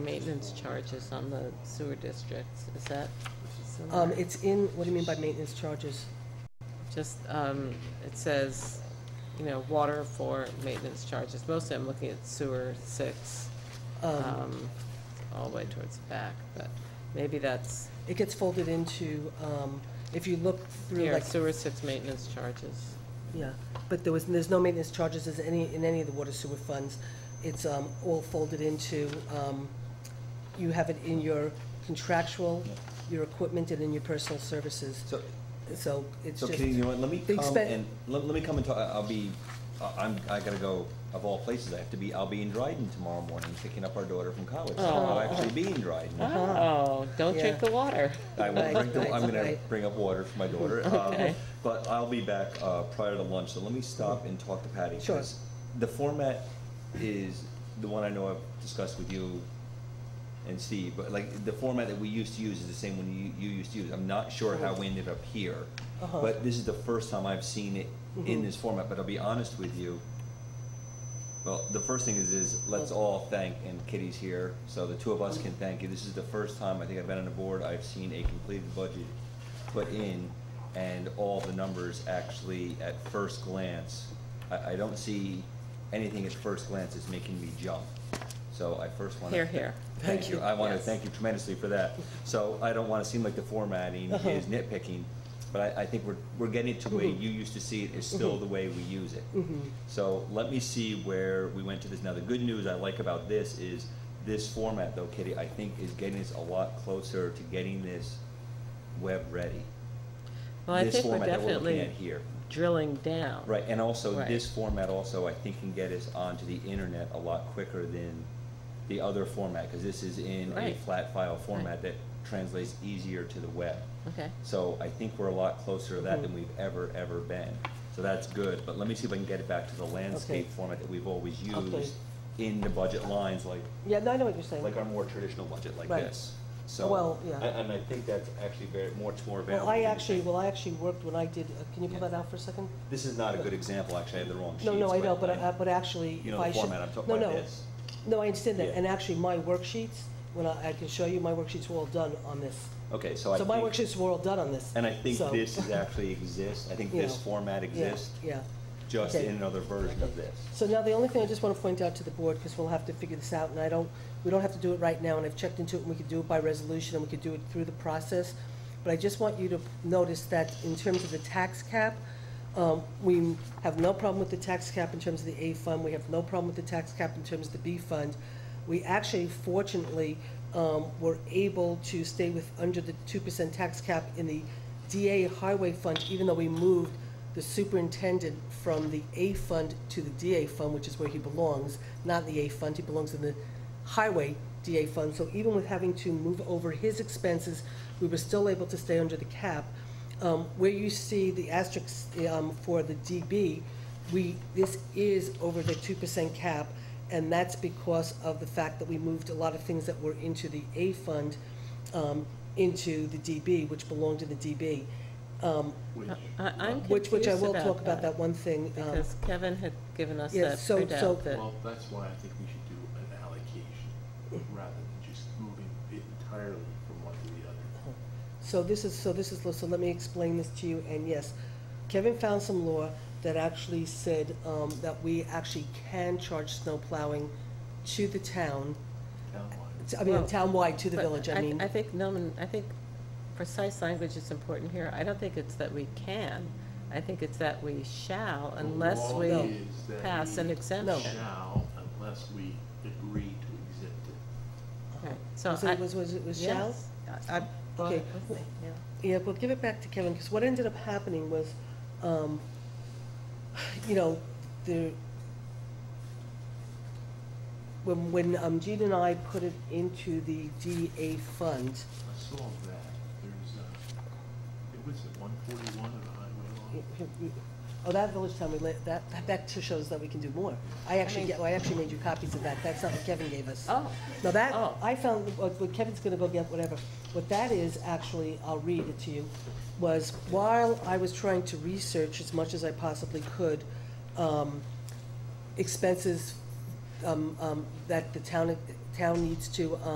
Maintenance charges on the sewer districts, is that similar? Um, it's in, what do you mean by maintenance charges? Just, um, it says, you know, water for maintenance charges, mostly I'm looking at sewer six, Um, um, all the way towards the back, but maybe that's, it gets folded into, um, if you look through here, like, sewer six maintenance charges. yeah, but there was, there's no maintenance charges as any, in any of the water sewer funds. It's, um, all folded into, um, you have it in your contractual, your equipment, and in your personal services. So, So it's so just, Katie, you know what, let me the come expen- and, let, let me come and talk, I'll be, I- I'm, I gotta go, of all places, I have to be, I'll be in Dryden tomorrow morning, picking up our daughter from college. So I'll Oh. actually be in Dryden. Oh, don't drink Uh-huh. Yeah. the water. I will Right, bring, the- I'm right, gonna right. bring up water for my daughter. um, Okay. But I'll be back, uh, prior to lunch, so let me stop and talk to Patty. Sure. 'cause The format is the one I know I've discussed with you and Steve, but like, the format that we used to use is the same one you, you used to use. I'm not sure how we ended up here, Uh-huh. Mm-hmm. but this is the first time I've seen it in this format, but I'll be honest with you. Well, the first thing is, is let's all thank, and Kitty's here, so the two of us can thank you. This is the first time I think I've been on the board, I've seen a completed budget put in, and all the numbers actually, at first glance, I, I don't see anything at first glance that's making me jump. So I first want to. Here, here. Thank you. I want to Yes. thank you tremendously for that. So I don't want to seem like the formatting Uh-huh. is nitpicking, but I, I think we're, we're getting to the way you used to see it is still the way we use it. So let me see where we went to this. Now, the good news I like about this is this format though, Kitty, I think is getting us a lot closer to getting this web ready. Well, I This think we're format that we're looking definitely at here. drilling down. Right, and also Right. this format also, I think, can get us onto the internet a lot quicker than the other format, because this is in a Right. flat file format that translates easier to the web. Okay, So I think we're a lot closer to Mm-hmm. that than we've ever, ever been. So that's good, but let me see if I can get it back to the landscape format that we've always Okay. used in the budget lines, like, yeah, no, I know what you're saying. like our more traditional budget like Right. this. So. Well, yeah. a- And I think that's actually very, much more available. Well, I than you actually, think. well, I actually worked when I did, uh, can you pull Yeah. that out for a second? This is not a good example, actually, I have the wrong sheets. No, no, I know, but, I- but actually, You if know I the should. format, I'm talking no, about no. this. No, I understand that, Yeah. and actually, my worksheets, when I, I can show you, my worksheets were all done on this. Okay, so I So my think, worksheets were all done on this. and I think so- this is actually exists, I think You this know, format Yeah, exists, Yeah. just okay. in another version of this. So now the only thing I just want to point out to the board, because we'll have to figure this out, and I don't, we don't have to do it right now, and I've checked into it, and we could do it by resolution, and we could do it through the process. But I just want you to notice that in terms of the tax cap, um, we have no problem with the tax cap in terms of the A fund, we have no problem with the tax cap in terms of the B fund. We actually fortunately, um, were able to stay with, under the two percent tax cap in the DA highway fund, even though we moved the superintendent from the A fund to the DA fund, which is where he belongs, not the A fund, he belongs in the highway DA fund. So even with having to move over his expenses, we were still able to stay under the cap. Um, where you see the asterisks, um, for the DB, we, this is over the two percent cap, and that's because of the fact that we moved a lot of things that were into the A fund, um, into the DB, which belonged to the DB. Um, I, I'm which, which I confused will talk about about that one thing. um, Because Kevin had given us Yes, that so- so- printout that, Well, that's why I think we should do an allocation rather than just moving it entirely from one to the other. So this is, so this is, so let me explain this to you, and yes, Kevin found some law that actually said, um, that we actually can charge snow plowing to the town, Townwide. to- I mean, Well, townwide to the but village, I mean. I think, no, and I think precise language is important here. I don't think it's that we can. I think it's that we shall unless The law No. we is that pass an we exemption. Shall, unless we agree to exempt it. Right, So Was I- it, was, was it, was shall? Yes. I- I thought Okay. it was there, yeah. Yeah, we'll give it back to Kevin, because what ended up happening was, um, you know, the, when, when um, Gene and I put it into the DA fund, I saw that, there's a, it was at one forty-one of the highway law. oh, that village town, we let, that, that- that just shows that we can do more. I actually, mean- get- well, I actually made you copies of that, that's not what Kevin gave us. Oh, Now that, Oh. I found, what what Kevin's gonna go get, whatever, what that is, actually, I'll read it to you, was while I was trying to research as much as I possibly could, um, expenses, um, um, that the town, town needs to,